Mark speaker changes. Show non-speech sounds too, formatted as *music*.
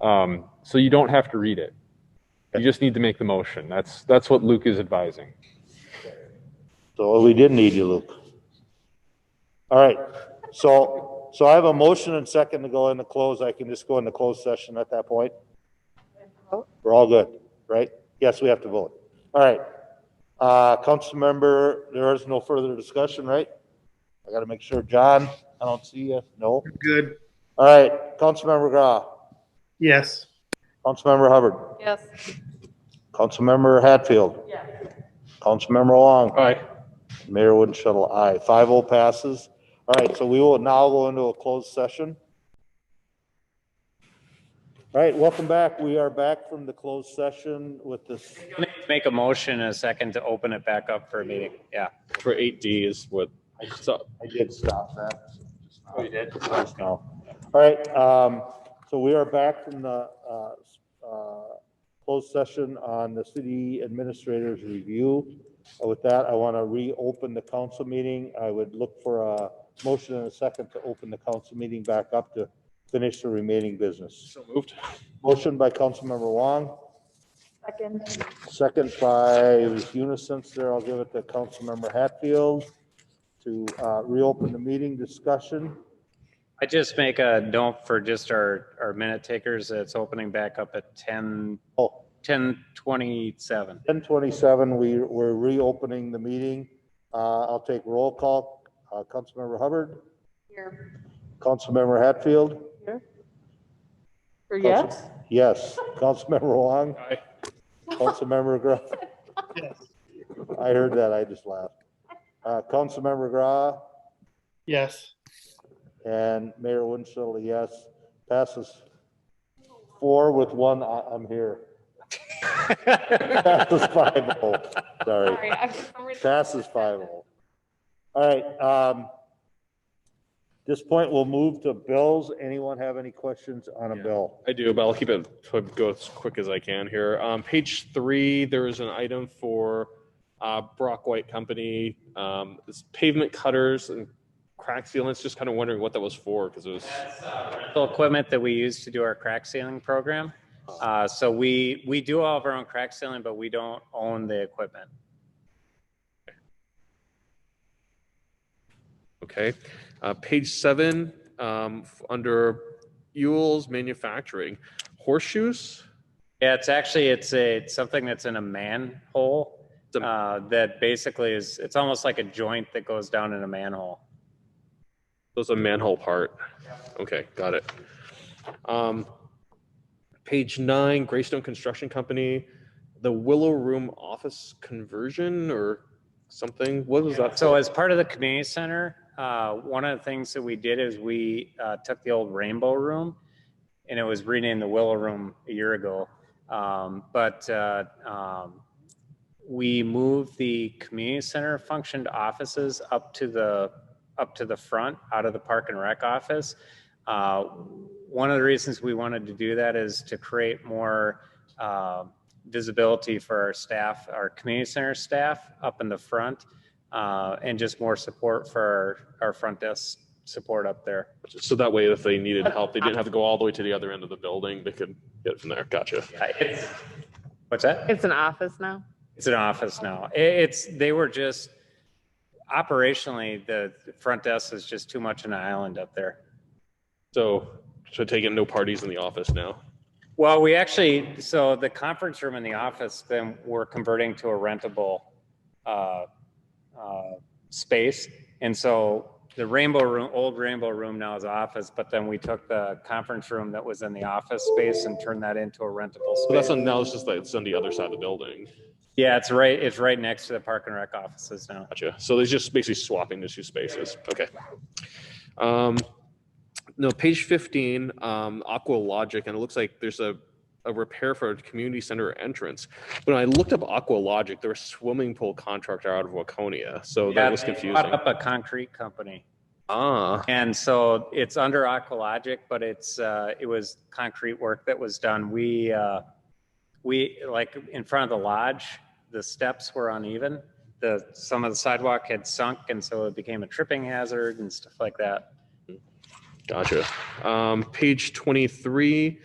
Speaker 1: Um, so you don't have to read it. You just need to make the motion. That's, that's what Luke is advising.
Speaker 2: So we did need you, Luke. All right, so, so I have a motion and second to go into close. I can just go into closed session at that point? We're all good, right? Yes, we have to vote. All right. Uh, council member, there is no further discussion, right? I gotta make sure, John, I don't see you, no?
Speaker 3: Good,
Speaker 2: All right, council member Grah,
Speaker 3: yes.
Speaker 2: council member Hubbard,
Speaker 4: Yes.
Speaker 2: council member Hatfield,
Speaker 4: Yes.
Speaker 2: council member Long.
Speaker 1: All right.
Speaker 2: Mayor Wooden Shuttle, aye. Five oh passes. All right, so we will now go into a closed session. All right, welcome back. We are back from the closed session with this,
Speaker 5: Make a motion and a second to open it back up for a meeting. Yeah.
Speaker 6: for eight D is what, so,
Speaker 2: I did stop that. Oh, you did? All right, um, so we are back from the, uh, uh, closed session on the city administrator's review. Uh, With that, I want to reopen the council meeting. I would look for a motion and a second to open the council meeting back up to finish the remaining business.
Speaker 6: so moved.
Speaker 2: Motion by Councilmember Wong,
Speaker 4: Second.
Speaker 2: second by unison there. I'll give it to Councilmember Hatfield to, uh, reopen the meeting discussion.
Speaker 5: I just make a note for just our, our minute takers. It's opening back up at 10,
Speaker 2: Oh,
Speaker 6: *laughs*
Speaker 5: 10:27.
Speaker 2: 10:27, we, we're reopening the meeting. Uh, I'll take roll call. Uh, Councilmember Hubbard,
Speaker 4: Here.
Speaker 2: Councilmember Hatfield,
Speaker 4: Here. Or yes?
Speaker 2: yes. Councilmember Wong. Aye. Councilmember Gra.
Speaker 3: Yes.
Speaker 2: I heard that, I just laughed. Uh, Councilmember Gra
Speaker 3: Yes.
Speaker 2: and Mayor Winchell, yes. Passes four with one, I, I'm here. Passes five oh, sorry.
Speaker 4: Sorry, I- I'm reading-
Speaker 2: Passes five oh. All right, um, this point, we'll move to bills. Anyone have any questions on a
Speaker 6: Yeah.
Speaker 2: bill?
Speaker 6: I do, but I'll keep it, go as quick as I can here. Um, page three, there is an item for, uh, Brock White Company. Um, it's pavement cutters and crack sealants, just kind of wondering what that was for, because it was,
Speaker 5: rental equipment that we use to do our crack sealing program.
Speaker 6: Uh-huh.
Speaker 5: Uh, So we, we do all of our own crack sealing, but we don't own the equipment.
Speaker 6: okay. Uh, page seven, um, f- under Ewell's Manufacturing, horseshoes?
Speaker 5: Yeah, it's actually, it's a, it's something that's in a manhole
Speaker 6: The-
Speaker 5: uh, that basically is, it's almost like a joint that goes down in a manhole.
Speaker 6: Those are manhole part. Okay, got it. Um, page nine, Greystone Construction Company, the Willow Room office conversion or something. What was that?
Speaker 5: So as part of the community center, uh, one of the things that we did is we uh, took the old Rainbow Room, and it was renamed the Willow Room a year ago. Um, but uh, um, we moved the community center function to offices up to the up to the front, out of the Park and Rec office. Uh, one of the reasons we wanted to do that is to create more. Uh, visibility for our staff, our community center staff up in the front, uh, and just more support for our, our front desk support up there.
Speaker 6: So that way, if they needed help, they didn't have to go all the way to the other end of the building. They could get it from there. Gotcha.
Speaker 5: I- it's- What's that?
Speaker 7: It's an office now?
Speaker 5: It's an office now. I- It's, they were just, operationally, the front desk is just too much an island up there.
Speaker 6: So, so take it no parties in the office now.
Speaker 5: Well, we actually, so the conference room in the office, then we're converting to a rentable uh, uh, space. And so the rainbow room, old rainbow room now is office, but then we took the conference room that was in the office space and turned that into a rentable
Speaker 6: So that's
Speaker 5: space.
Speaker 6: on, now it's just like it's on the other side of the building.
Speaker 5: Yeah, it's right, it's right next to the park and rec offices now.
Speaker 6: Gotcha. So they're just basically swapping the two spaces. Okay. Um, no, page fifteen, um, Aqua Logic, and it looks like there's a, a repair for a community center entrance. When I looked up Aqua Logic, they're a swimming pool contractor out of Waconia, so
Speaker 5: Yeah,
Speaker 6: Oh, that was
Speaker 5: they bought
Speaker 6: confusing.
Speaker 5: Up a concrete company.
Speaker 6: Ah,
Speaker 5: And so it's under Aqualogic, but it's, uh, it was concrete work that was done. We, uh, we, like, in front of the lodge, the steps were uneven. The, some of the sidewalk had sunk, and so it became a tripping hazard and stuff like that.
Speaker 6: gotcha. Um, page twenty-three,